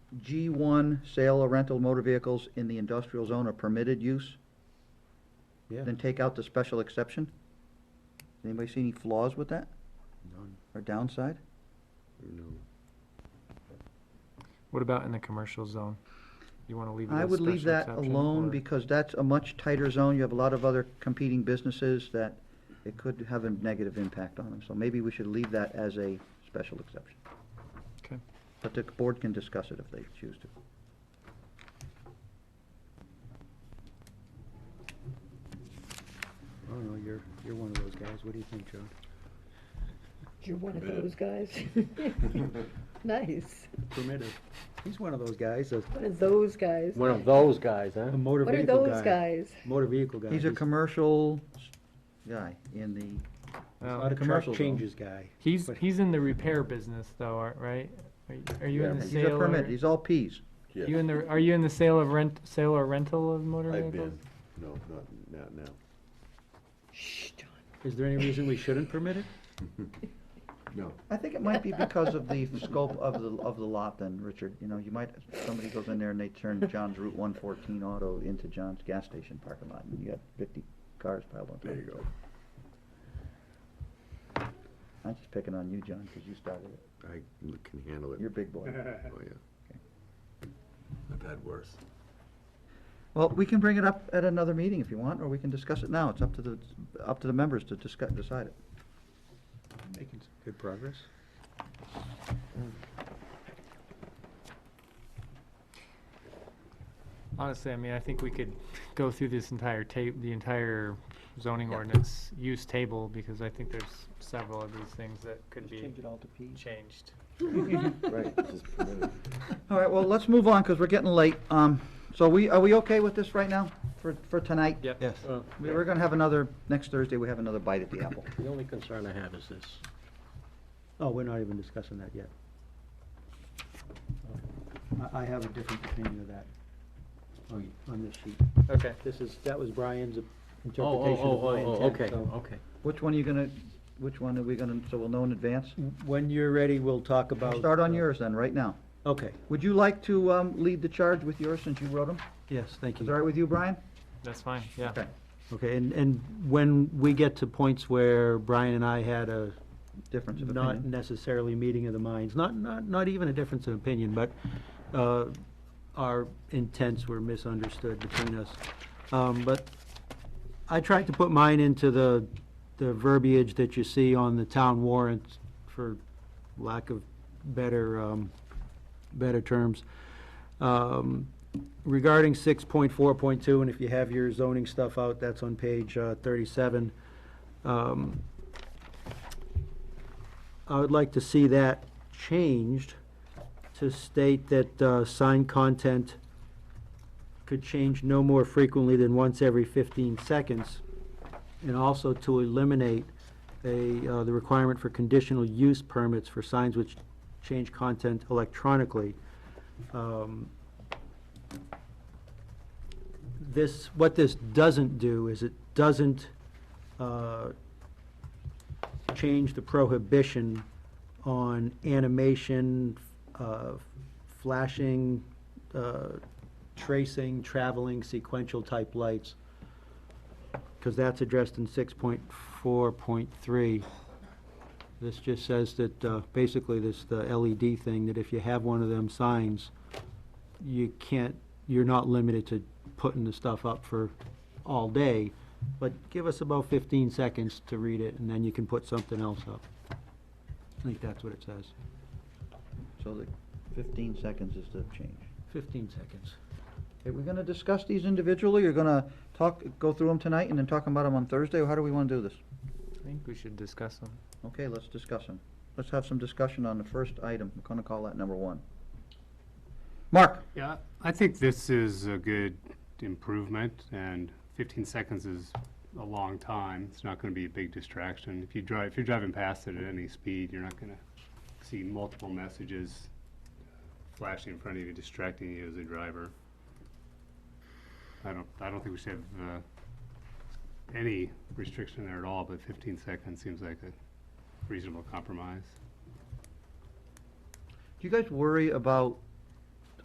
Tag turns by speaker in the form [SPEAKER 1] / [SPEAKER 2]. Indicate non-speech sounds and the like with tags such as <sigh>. [SPEAKER 1] G one, sale or rental of motor vehicles in the industrial zone are permitted use,
[SPEAKER 2] Yeah.
[SPEAKER 1] then take out the special exception? Anybody see any flaws with that
[SPEAKER 2] None,
[SPEAKER 1] or downside?
[SPEAKER 2] no.
[SPEAKER 3] What about in the commercial zone? You want to leave it as
[SPEAKER 1] I would leave
[SPEAKER 3] special
[SPEAKER 1] that
[SPEAKER 3] exception,
[SPEAKER 1] alone
[SPEAKER 3] or-
[SPEAKER 1] because that's a much tighter zone. You have a lot of other competing businesses that it could have a negative impact on them. So maybe we should leave that as a special exception.
[SPEAKER 3] Okay.
[SPEAKER 1] But the board can discuss it if they choose to.
[SPEAKER 2] I don't know, you're, you're one of those guys. What do you think, John?
[SPEAKER 4] You're one of those
[SPEAKER 5] <laughs>
[SPEAKER 4] guys. Nice.
[SPEAKER 2] Permitted. He's one of those guys, a
[SPEAKER 4] One of those guys.
[SPEAKER 6] One of those guys, huh?
[SPEAKER 2] a motor
[SPEAKER 4] What are
[SPEAKER 2] vehicle guy.
[SPEAKER 4] those guys?
[SPEAKER 2] Motor vehicle guy.
[SPEAKER 1] He's a commercial s- guy in the,
[SPEAKER 2] A
[SPEAKER 3] Oh,
[SPEAKER 2] lot of
[SPEAKER 1] commercial
[SPEAKER 2] truck
[SPEAKER 1] zone.
[SPEAKER 2] changes guy.
[SPEAKER 3] He's,
[SPEAKER 2] but-
[SPEAKER 3] he's in the repair business though, aren't- right? Are you- Are you in the
[SPEAKER 1] he's a
[SPEAKER 3] sale or?
[SPEAKER 1] permit, he's all Ps.
[SPEAKER 5] Yes.
[SPEAKER 3] You in the, are you in the sale of rent, sale or rental of motor
[SPEAKER 5] I've
[SPEAKER 3] vehicles?
[SPEAKER 5] been, no, not, not now,
[SPEAKER 4] Shh, John.
[SPEAKER 2] Is there any reason we shouldn't permit it?
[SPEAKER 5] no.
[SPEAKER 1] I think it might be because of the <laughs> scope of the, of the lot then, Richard. You know, you might, somebody goes in there and they turn John's Route one fourteen auto into John's gas station parking lot and you got fifty cars piled on top of
[SPEAKER 5] There you
[SPEAKER 1] each
[SPEAKER 5] go.
[SPEAKER 1] other. I'm just picking on you, John, because you started it.
[SPEAKER 5] I can handle it.
[SPEAKER 1] You're a big
[SPEAKER 5] <laughs>
[SPEAKER 1] boy.
[SPEAKER 5] Oh, yeah. I've had worse.
[SPEAKER 1] Well, we can bring it up at another meeting if you want, or we can discuss it now. It's up to the, up to the members to discuss, decide it.
[SPEAKER 2] Making s- good progress.
[SPEAKER 3] Honestly, I mean, I think we could go through this entire tape, the entire zoning ordinance use table, because I think there's several of these things that could be
[SPEAKER 2] it all to P.
[SPEAKER 3] changed.
[SPEAKER 5] <laughs> Right,
[SPEAKER 4] <laughs>
[SPEAKER 5] just permitted.
[SPEAKER 1] All right, well, let's move on, because we're getting late. Um, so we, are we okay with this right now for, for tonight?
[SPEAKER 3] Yep.
[SPEAKER 6] Yes.
[SPEAKER 1] We- We're gonna have another, next Thursday, we have another bite at the apple.
[SPEAKER 6] The only concern I have is this.
[SPEAKER 2] Oh, we're not even discussing that yet. I, I have a different opinion of that on, on this sheet.
[SPEAKER 3] Okay.
[SPEAKER 2] This is, that was Brian's
[SPEAKER 6] Oh, oh,
[SPEAKER 2] interpretation of
[SPEAKER 6] oh,
[SPEAKER 2] my
[SPEAKER 6] oh, oh,
[SPEAKER 2] intent,
[SPEAKER 6] okay,
[SPEAKER 2] so-
[SPEAKER 6] okay.
[SPEAKER 1] Which one are you gonna, which one are we gonna, so we'll know in advance?
[SPEAKER 2] When you're ready, we'll talk Mm. about.
[SPEAKER 1] Start on
[SPEAKER 2] uh,
[SPEAKER 1] yours then, right now.
[SPEAKER 2] Okay,
[SPEAKER 1] Would you like to, um, lead the charge with yours, since you wrote them?
[SPEAKER 2] yes, thank
[SPEAKER 1] Is that all right
[SPEAKER 2] you.
[SPEAKER 1] with you, Brian?
[SPEAKER 3] That's fine, yeah.
[SPEAKER 1] Okay.
[SPEAKER 2] Okay, and, and when we get to points where Brian and I had a
[SPEAKER 1] Difference of
[SPEAKER 2] not
[SPEAKER 1] opinion.
[SPEAKER 2] necessarily meeting of the minds, not, not, not even a difference in opinion, but, uh, our intents were misunderstood between us. Um, but I tried to put mine into the, the verbiage that you see on the town warrant, for lack of better, um, better terms. Um, regarding six point four point two, and if you have your zoning stuff out, that's on page, uh, thirty-seven. Um, I would like to see that changed to state that uh, sign content could change no more frequently than once every 15 seconds, and also to eliminate a, uh, the requirement for conditional use permits for signs which change content electronically. Um, This, what this doesn't do is it doesn't uh, change the prohibition on animation, uh, flashing, uh, tracing, traveling, sequential type lights. Because that's addressed in six point four point three. This just says that, uh, basically this, the LED thing, that if you have one of them signs, you can't, you're not limited to putting the stuff up for all day, but give us about fifteen seconds to read it, and then you can put something else up. I think that's what it says,
[SPEAKER 1] So the fifteen seconds is the change.
[SPEAKER 2] fifteen seconds.
[SPEAKER 1] Okay, we're gonna discuss these individually, you're gonna talk, go through them tonight and then talk about them on Thursday, or how do we wanna do this?
[SPEAKER 3] I think we should discuss them.
[SPEAKER 1] Okay, let's discuss them. Let's have some discussion on the first item. We're gonna call that number one. Mark?
[SPEAKER 7] Yeah, I think this is a good improvement, and 15 seconds is a long time. It's not going to be a big distraction. If you drive, if you're driving past it at any speed, you're not going to see multiple messages uh, flashing in front of you, distracting you as a driver. I don't, I don't think we should have uh, any restriction there at all, but 15 seconds seems like a reasonable compromise.
[SPEAKER 1] Do you guys worry about